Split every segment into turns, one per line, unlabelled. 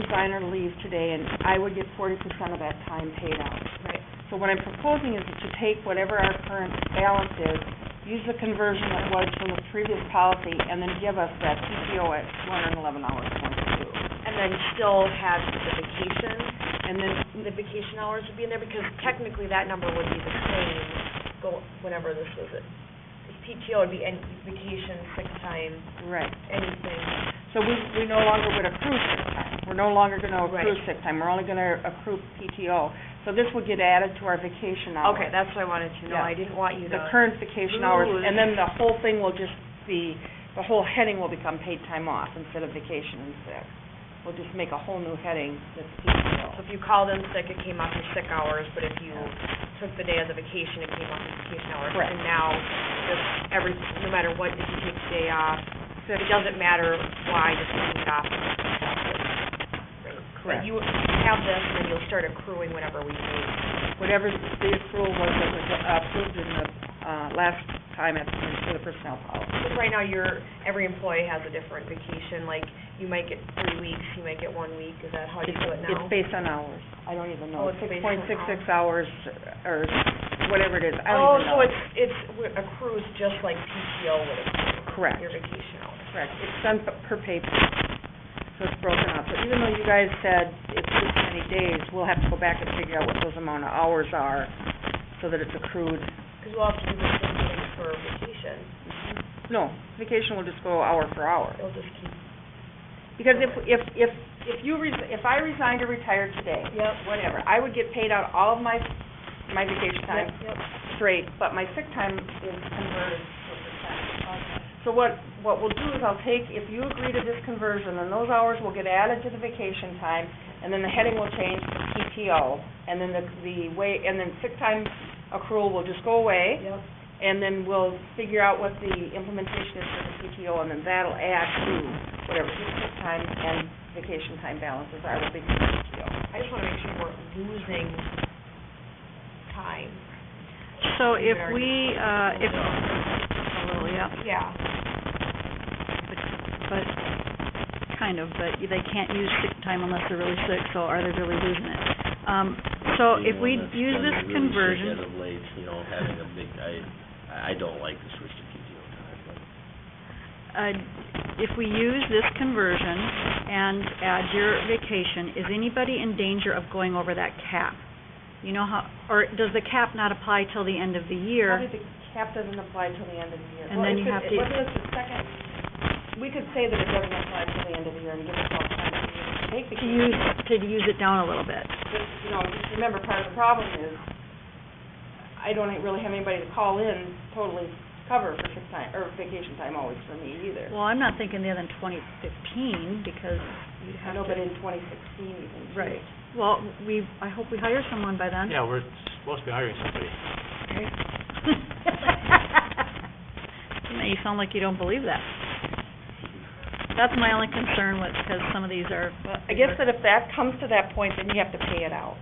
designer leave today, and I would get forty percent of that time paid out.
Right.
So what I'm proposing is that you take whatever our current balance is, use the conversion that was from the previous policy, and then give us that PTO at two hundred and eleven hours twenty-two.
And then still have the vacation,
And then,
the vacation hours would be in there, because technically that number would be the same, go, whenever this was, it. This PTO would be any vacation, sick time,
right,
anything.
so we, we no longer would accrue sick time. We're no longer gonna accrue
Right.
sick time, we're only gonna accrue PTO. So this would get added to our vacation hours.
Okay, that's what I wanted to know, I didn't want you to.
the current vacation hours,
Ooh.
and then the whole thing will just be, the whole heading will become paid time off instead of vacation and sick. We'll just make a whole new heading that's
So
PTO.
if you called in sick, it came off your sick hours, but if you took the day of the vacation, it came off your vacation hours.
Correct.
And now, just every, no matter what, if you take the day off, it doesn't matter why, you're taking it off. But
Correct.
you have this, and then you'll start accruing whenever we need.
Whatever the accrual was that was approved in the, uh, last time at, for the personnel policy.
Because right now, your, every employee has a different vacation, like, you might get three weeks, you might get one week, is that how you do it
It's-
now?
It's based on hours. I don't even
Oh,
know.
it's
Six
based on
point six six hours or whatever it is. I don't even
Oh,
know.
so it's, it's accrues just like PTO would accrue,
Correct.
your vacation hours.
Correct, it's done p- per pay period, so it's broken up. So even though you guys said it's this many days, we'll have to go back and figure out what those amount of hours are so that it's accrued.
Because we'll have to do the same thing for vacation.
No, vacation will just go hour for hour.
It'll just keep.
Because if, if, if, if you, res- if I resigned or retired today,
Yep.
whatever, I would get paid out all of my, my vacation time
Yep.
straight, but my sick time is converted to a percent. So what, what we'll do is I'll take, if you agree to this conversion, then those hours will get added to the vacation time, and then the heading will change to PTO, and then the, the way, and then sick time accrual will just go away,
Yep.
and then we'll figure out what the implementation is for the PTO, and then that'll add to whatever his sick time and vacation time balances are with the PTO.
I just want to make sure we're losing time.
So if we, uh, if, a little, yeah,
Yeah.
but, kind of, but they can't use sick time unless they're really sick, so are they really losing it? Um, so if we use this
Get
conversion,
them late, you know, having a big, I, I don't like the switch to PTO time, but
uh, if we use this conversion and add your vacation, is anybody in danger of going over that cap? You know how, or does the cap not apply till the end of the year?
Probably the cap doesn't apply till the end of the year.
And
Well,
then
it
you
could-
have
it-
to-
Wasn't this the second, we could say that it doesn't apply till the end of the year and give ourselves time to take the.
To use, to use it down a little bit.
But, you know, just remember, part of the problem is, I don't really have anybody to call in totally cover for sick time, or vacation time always for me either.
Well, I'm not thinking the other than twenty fifteen, because you'd
I
have to...
know, but in twenty sixteen even. too.
Right. Well, we, I hope we hire someone by then.
Yeah, we're supposed to be hiring somebody.
You know, you sound like you don't believe that. That's my only concern with, because some of these are,
Well, I guess that if that comes to that point, then you have to pay it out.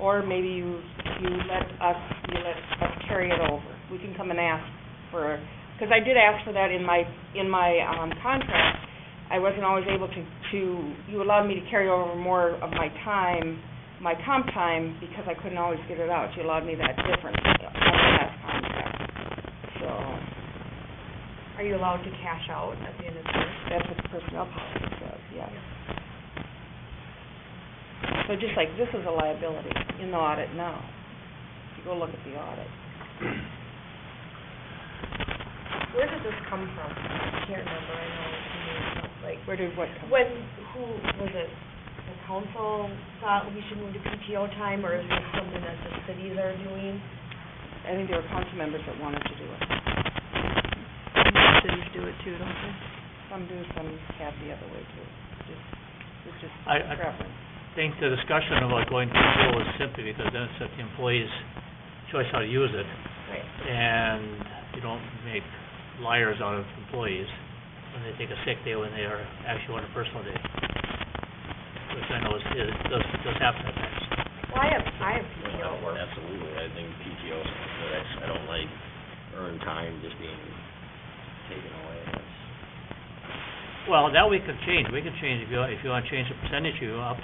Or maybe you, you let us, you let us carry it over. We can come and ask for, because I did ask for that in my, in my, um, contract. I wasn't always able to, to, you allowed me to carry over more of my time, my comp time, because I couldn't always get it out. You allowed me that difference uh, on the last contract. So,
Are you allowed to cash out at the end of the year?
that's what the personnel policy says, yes. So just like this is a liability in the audit now, if you go look at the audit.
Where did this come from? I can't remember, I know, it's new, like,
Where did what come?
when, who, was it the council thought we should move to PTO time, or is this something that the cities are doing?
I think there were council members that wanted to do it.
cities do it too, don't they?
Some do, some have the other way too. Just, it's just
I, I
preference.
think the discussion about going to school is simply because then it's at the employee's choice how to use it,
Right.
and you don't make liars out of employees when they take a sick day when they are actually on a personal day, which I know is, is, does, does happen at times.
Well, I have, I have
you
PTO
know,
work.
absolutely, I think PTO, is something that I, I don't like earned time just being taken away, that's,
Well, that we could change, we could change, if you, if you wanna change the percentage, you up